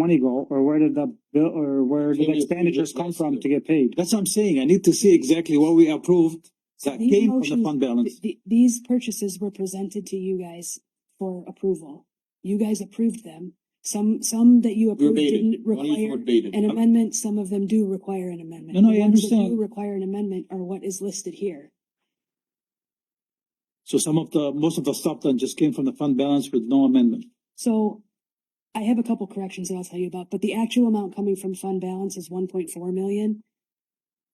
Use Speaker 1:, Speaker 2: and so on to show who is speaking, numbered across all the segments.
Speaker 1: money go, or where did the bill, or where did
Speaker 2: Can
Speaker 1: the
Speaker 2: you-
Speaker 1: expenditures come from to get paid?
Speaker 3: That's what I'm saying. I need to see exactly what we approved that
Speaker 4: These
Speaker 3: came from the
Speaker 4: motions-
Speaker 3: fund balance.
Speaker 4: Th- th- These purchases were presented to you guys for approval. You guys approved them. Some, some that you approved
Speaker 2: Verbatim,
Speaker 4: didn't
Speaker 2: only
Speaker 4: require
Speaker 2: verbatim.
Speaker 4: an amendment, some of them do require an amendment.
Speaker 3: No, no, I
Speaker 4: The ones that
Speaker 3: understand.
Speaker 4: do Require an amendment are what is listed here.
Speaker 3: So some of the, most of the stuff then just came from the fund balance with no amendment.
Speaker 4: So I have a couple corrections that I'll tell you about, but the actual amount coming from fund balance is one point four million.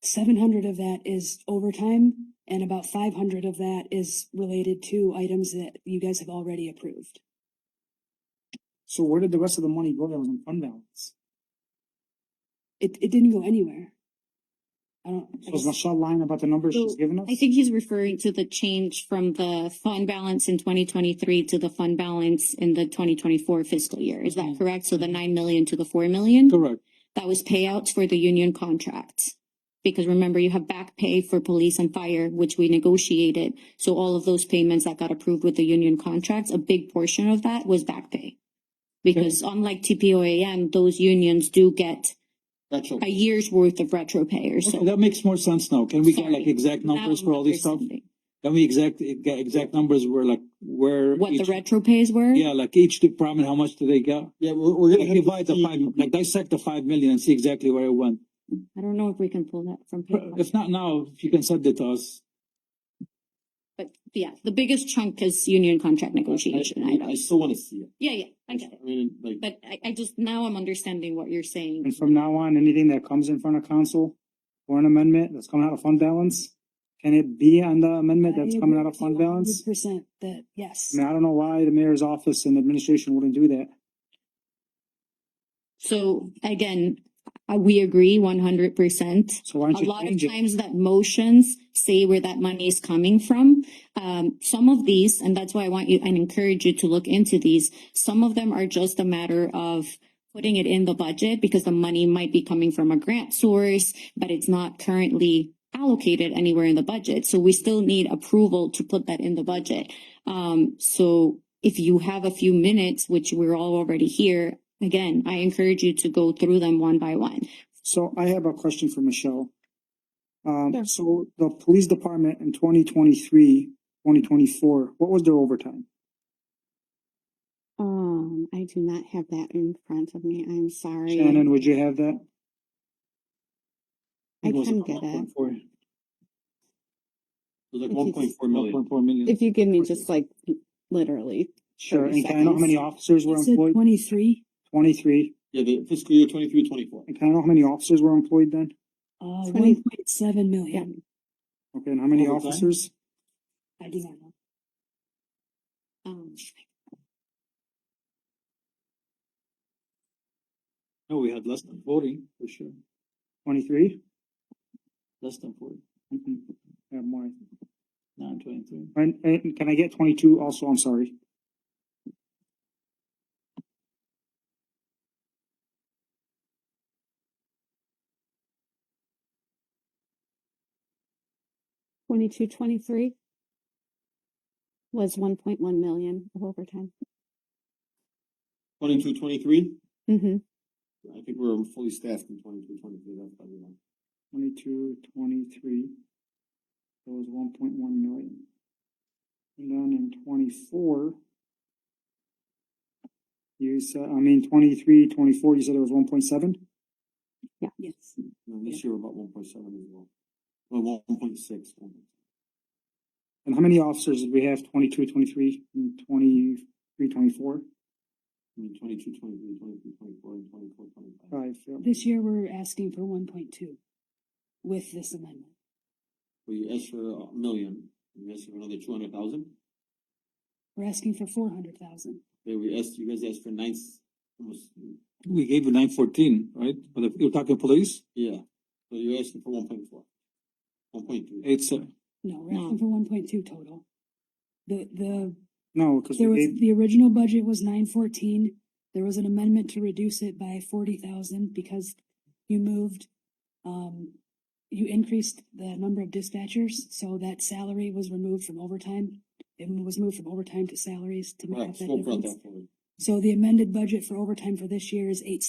Speaker 4: Seven hundred of that is overtime and about five hundred of that is related to items that you guys have already approved.
Speaker 1: So where did the rest of the money go that was in fund balance?
Speaker 4: It, it didn't go anywhere. I don't. I
Speaker 1: So is
Speaker 4: just-
Speaker 1: Michelle lying about the numbers she's
Speaker 5: So,
Speaker 1: given us?
Speaker 5: I think he's referring to the change from the fund balance in twenty twenty-three to the fund balance in the twenty twenty-four fiscal year. Is that
Speaker 3: Mhm.
Speaker 5: correct? So the nine million to the four million?
Speaker 3: Correct.
Speaker 5: That was payouts for the union contract. Because remember, you have back pay for police and fire, which we negotiated. So all of those payments that got approved with the union contracts, a big portion of that was back pay. Because unlike TPOAM, those unions do get
Speaker 2: That's all.
Speaker 5: a year's worth of retro pay or
Speaker 3: Okay,
Speaker 5: so.
Speaker 3: that makes more sense now. Can we get like
Speaker 5: Sorry.
Speaker 3: exact numbers
Speaker 5: Now
Speaker 3: for all this
Speaker 5: I'm
Speaker 3: stuff?
Speaker 5: understanding.
Speaker 3: Can we exact, get exact numbers where like, where?
Speaker 5: What the
Speaker 3: each-
Speaker 5: retro pays were?
Speaker 3: Yeah, like each department, how much do they get?
Speaker 2: Yeah, we're, we're gonna
Speaker 3: Like
Speaker 2: have.
Speaker 3: divide
Speaker 2: to
Speaker 3: the
Speaker 2: see-
Speaker 3: five, like dissect the five million and see exactly where it went.
Speaker 5: I don't know if we can pull that from. PayPal.
Speaker 3: If not now, if you can send it to us.
Speaker 5: But yeah, the biggest chunk is union contract negotiation
Speaker 2: I- I- I
Speaker 5: items.
Speaker 2: still wanna see it.
Speaker 5: Yeah, yeah, I get it.
Speaker 2: I mean, like.
Speaker 5: But I, I just, now I'm understanding what you're saying.
Speaker 1: And from now on, anything that comes in front of council for an amendment that's coming out of fund balance, can it be on the amendment that's
Speaker 4: I
Speaker 1: coming
Speaker 4: agree
Speaker 1: out of
Speaker 4: with
Speaker 1: fund
Speaker 4: you a hundred
Speaker 1: balance?
Speaker 4: Percent that, yes.
Speaker 1: I mean, I don't know why the mayor's office and administration wouldn't do that.
Speaker 5: So again, uh, we agree one hundred percent.
Speaker 1: So why don't
Speaker 5: A
Speaker 1: you
Speaker 5: lot of
Speaker 1: change it?
Speaker 5: times that motions say where that money is coming from. Um, some of these, and that's why I want you and encourage you to look into these. Some of them are just a matter of putting it in the budget because the money might be coming from a grant source, but it's not currently allocated anywhere in the budget. So we still need approval to put that in the budget. Um, so if you have a few minutes, which we're all already here, again, I encourage you to go through them one by one.
Speaker 1: So I have a question for Michelle. Um, so the police department in 2023, 2024, what was their overtime?
Speaker 6: Um, I do not have that in front of me. I'm sorry.
Speaker 1: Shannon, would you have that?
Speaker 6: I
Speaker 3: It was
Speaker 6: can
Speaker 3: like
Speaker 6: get it.
Speaker 3: 1.4,
Speaker 2: It was like
Speaker 6: If
Speaker 2: one
Speaker 6: you-
Speaker 2: point four million.
Speaker 3: 1.4 million.
Speaker 6: If you give me just like literally.
Speaker 1: Sure.
Speaker 6: Thirty
Speaker 1: And can I know how
Speaker 6: seconds.
Speaker 1: many officers were
Speaker 4: You said
Speaker 1: employed?
Speaker 4: twenty-three?
Speaker 1: Twenty-three.
Speaker 2: Yeah, the fiscal year twenty-three, twenty-four.
Speaker 1: And can I know how many officers were employed then?
Speaker 4: Uh, one
Speaker 6: 20.
Speaker 4: point seven million.
Speaker 1: Okay, and how many
Speaker 2: Overtime?
Speaker 1: officers?
Speaker 4: I do not know.
Speaker 5: Um,
Speaker 3: No, we had less than forty, for sure,
Speaker 1: Twenty-three?
Speaker 3: less than forty,
Speaker 1: Mm-mm. I have more.
Speaker 3: nine twenty-three.
Speaker 1: And, and can I get twenty-two also? I'm sorry.
Speaker 6: Twenty-two, twenty-three was one point one million of overtime.
Speaker 2: Twenty-two, twenty-three,
Speaker 6: Mm-hmm.
Speaker 2: I think we're fully staffed in twenty-two, twenty-three, that's probably wrong.
Speaker 1: Twenty-two, twenty-three. That was one point one million. And then in twenty-four. You said, I mean, twenty-three, twenty-four, you said it was one point seven?
Speaker 4: Yes.
Speaker 2: No, this year we're about one point seven as well. Well, one point six.
Speaker 1: And how many officers did we have? Twenty-two, twenty-three, and twenty-three, twenty-four?
Speaker 2: Twenty-two, twenty-three, twenty-three, twenty-four, and twenty-four, twenty-five.
Speaker 1: Five, yeah.
Speaker 4: This year, we're asking for one point two with this amendment.
Speaker 2: We asked for a million, we asked for another two hundred thousand.
Speaker 4: We're asking for four hundred thousand.
Speaker 2: Yeah, we asked, you guys asked for nine, s- almost,
Speaker 3: We gave you nine fourteen, right? But if you're talking police,
Speaker 2: yeah, so you're asking for one point four. One point three.
Speaker 3: it's, uh,
Speaker 4: No, we're
Speaker 5: No.
Speaker 4: asking for one point two total. The, the,
Speaker 1: No, because
Speaker 4: there
Speaker 1: we
Speaker 4: was,
Speaker 1: gave,
Speaker 4: the original budget was nine fourteen. There was an amendment to reduce it by forty thousand because you moved, um, you increased the number of dispatchers, so that salary was removed from overtime. It was moved from overtime to salaries to make
Speaker 2: Right,
Speaker 4: up that
Speaker 2: so brought
Speaker 4: difference.
Speaker 2: that forward.
Speaker 4: So the amended budget for overtime for this year is eight